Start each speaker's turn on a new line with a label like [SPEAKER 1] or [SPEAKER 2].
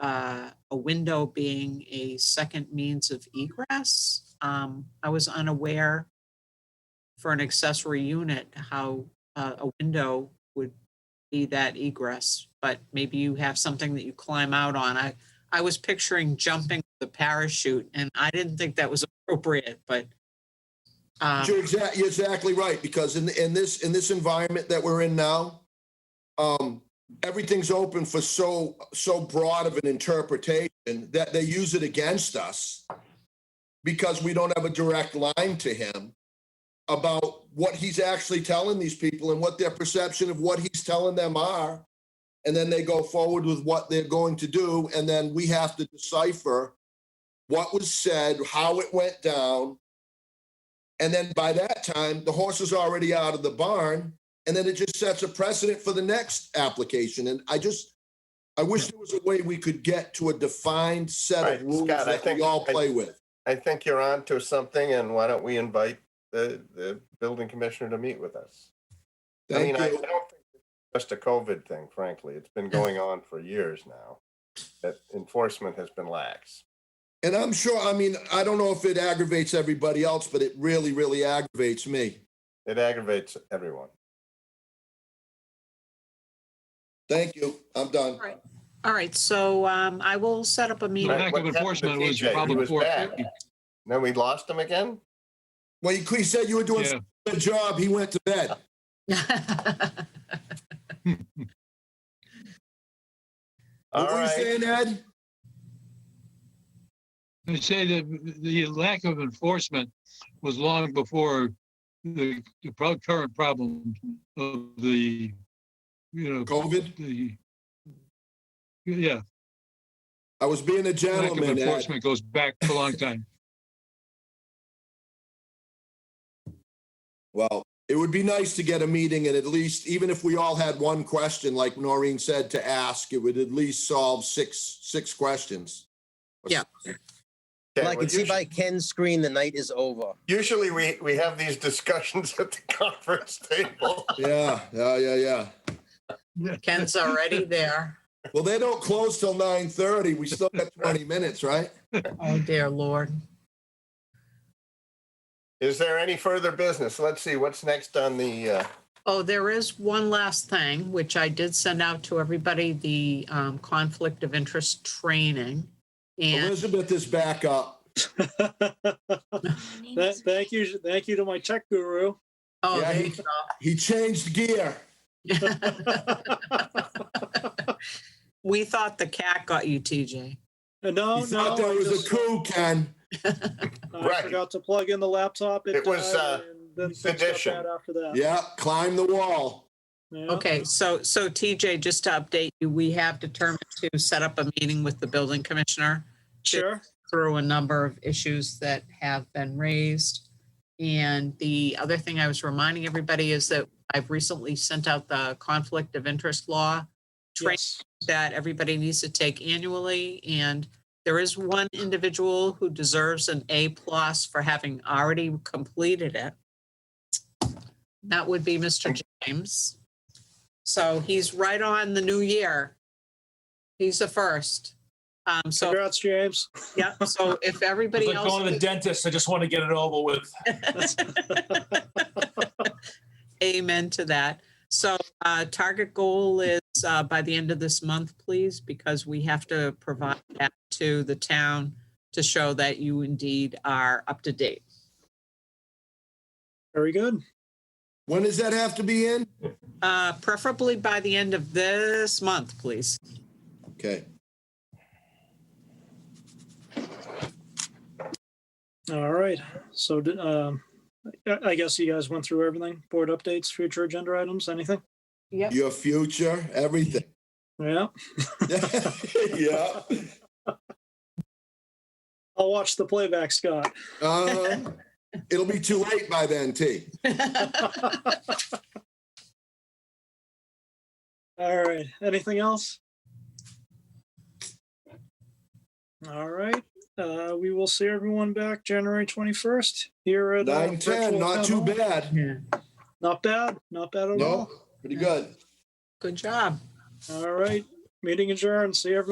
[SPEAKER 1] uh, a window being a second means of egress. Um, I was unaware for an accessory unit, how uh, a window would be that egress, but maybe you have something that you climb out on. I, I was picturing jumping the parachute and I didn't think that was appropriate, but. uh,
[SPEAKER 2] You're exactly, you're exactly right, because in, in this, in this environment that we're in now, um, everything's open for so, so broad of an interpretation that they use it against us because we don't have a direct line to him about what he's actually telling these people and what their perception of what he's telling them are. And then they go forward with what they're going to do, and then we have to decipher what was said, how it went down, and then by that time, the horse is already out of the barn. And then it just sets a precedent for the next application. And I just, I wish there was a way we could get to a defined set of
[SPEAKER 3] Right,
[SPEAKER 2] rules
[SPEAKER 3] Scott, I
[SPEAKER 2] that we
[SPEAKER 3] think-
[SPEAKER 2] all
[SPEAKER 3] I-
[SPEAKER 2] play with.
[SPEAKER 3] I think you're on to something, and why don't we invite the, the building commissioner to meet with us? I mean,
[SPEAKER 2] Thank
[SPEAKER 3] I
[SPEAKER 2] you.
[SPEAKER 3] don't think it's just a COVID thing, frankly. It's been going on for years now. That enforcement has been lax.
[SPEAKER 2] And I'm sure, I mean, I don't know if it aggravates everybody else, but it really, really aggravates me.
[SPEAKER 3] It aggravates everyone.
[SPEAKER 2] Thank you. I'm done.
[SPEAKER 1] Right. All right, so um, I will set up a
[SPEAKER 3] Right,
[SPEAKER 4] The
[SPEAKER 1] meeting.
[SPEAKER 4] lack
[SPEAKER 3] what happened
[SPEAKER 4] of
[SPEAKER 3] to
[SPEAKER 4] enforcement was
[SPEAKER 3] TJ? He
[SPEAKER 4] probably
[SPEAKER 3] was
[SPEAKER 4] before.
[SPEAKER 3] back. Then we lost him again?
[SPEAKER 2] Well, you he said you were doing
[SPEAKER 4] Yeah.
[SPEAKER 2] a good job. He went to bed.
[SPEAKER 3] All
[SPEAKER 2] What were you
[SPEAKER 3] right,
[SPEAKER 2] saying, Ed?
[SPEAKER 4] I say that the lack of enforcement was long before the the pro- current problem of the, you know,
[SPEAKER 2] COVID?
[SPEAKER 4] the, yeah,
[SPEAKER 2] I was being a
[SPEAKER 4] lack of
[SPEAKER 2] gentleman, Ed.
[SPEAKER 4] enforcement goes back a long time.
[SPEAKER 2] Well, it would be nice to get a meeting and at least, even if we all had one question, like Noreen said, to ask, it would at least solve six, six questions.
[SPEAKER 1] Yeah.
[SPEAKER 3] Okay,
[SPEAKER 5] Well, I
[SPEAKER 3] well,
[SPEAKER 5] can see
[SPEAKER 3] usu-
[SPEAKER 5] by Ken's screen, the night is over.
[SPEAKER 3] Usually we, we have these discussions at the conference table.
[SPEAKER 2] Yeah, yeah, yeah, yeah.
[SPEAKER 1] Ken's already there.
[SPEAKER 2] Well, they don't close till nine thirty. We still got twenty minutes, right?
[SPEAKER 1] Oh, dear Lord.
[SPEAKER 3] Is there any further business? Let's see, what's next on the, uh,
[SPEAKER 1] Oh, there is one last thing, which I did send out to everybody, the um, conflict of interest training.
[SPEAKER 2] Oh,
[SPEAKER 1] And
[SPEAKER 2] Elizabeth is back up.
[SPEAKER 6] That, thank you, thank you to my tech guru.
[SPEAKER 1] oh,
[SPEAKER 2] Yeah,
[SPEAKER 1] there
[SPEAKER 2] he-
[SPEAKER 1] you go.
[SPEAKER 2] He changed gear.
[SPEAKER 1] we thought the cat got you, TJ.
[SPEAKER 2] He
[SPEAKER 6] No, Oh, no.
[SPEAKER 2] thought there
[SPEAKER 6] I
[SPEAKER 2] was a
[SPEAKER 6] just-
[SPEAKER 2] coup, Ken.
[SPEAKER 6] I forgot to plug in the laptop.
[SPEAKER 3] It was,
[SPEAKER 6] died,
[SPEAKER 3] uh,
[SPEAKER 6] and Then fixed
[SPEAKER 3] sedition.
[SPEAKER 6] up that after that.
[SPEAKER 2] Yeah, climb the wall.
[SPEAKER 6] Yeah.
[SPEAKER 1] Okay, so so TJ, just to update you, we have determined to set up a meeting with the building commissioner.
[SPEAKER 6] Sure.
[SPEAKER 1] through a number of issues that have been raised. And the other thing I was reminding everybody is that I've recently sent out the conflict of interest law training
[SPEAKER 6] Yes.
[SPEAKER 1] that everybody needs to take annually. And there is one individual who deserves an A plus for having already completed it. That would be Mr. James. So he's right on the new year. He's the first. Um, so
[SPEAKER 6] Congrats, James.
[SPEAKER 1] yeah, so if
[SPEAKER 7] It's
[SPEAKER 1] everybody
[SPEAKER 7] like going to the
[SPEAKER 1] else,
[SPEAKER 7] dentist. I just want to get it over with.
[SPEAKER 1] amen to that. So uh, target goal is uh, by the end of this month, please, because we have to provide that to the town to show that you indeed are up to date.
[SPEAKER 6] Very good.
[SPEAKER 2] When does that have to be in?
[SPEAKER 1] Uh, Preferably by the end of this month, please.
[SPEAKER 2] Okay.
[SPEAKER 6] All right. So, d- um, I, I guess you guys went through everything, board updates, future agenda items, anything?
[SPEAKER 1] Yep.
[SPEAKER 2] Your future, everything.
[SPEAKER 6] Yeah.
[SPEAKER 2] yeah.
[SPEAKER 6] I'll watch the playback, Scott.
[SPEAKER 2] Um, it'll be too late by then, T.
[SPEAKER 6] All right. Anything else? All right. Uh, we will see everyone back January 21st here at. uh,
[SPEAKER 2] Nine ten,
[SPEAKER 6] virtual
[SPEAKER 2] not
[SPEAKER 6] town
[SPEAKER 2] too
[SPEAKER 6] hall.
[SPEAKER 2] bad.
[SPEAKER 6] Not bad. Not bad at
[SPEAKER 2] No,
[SPEAKER 6] all.
[SPEAKER 2] pretty good.
[SPEAKER 1] Good job.
[SPEAKER 6] All right. Meeting adjourned. See everyone.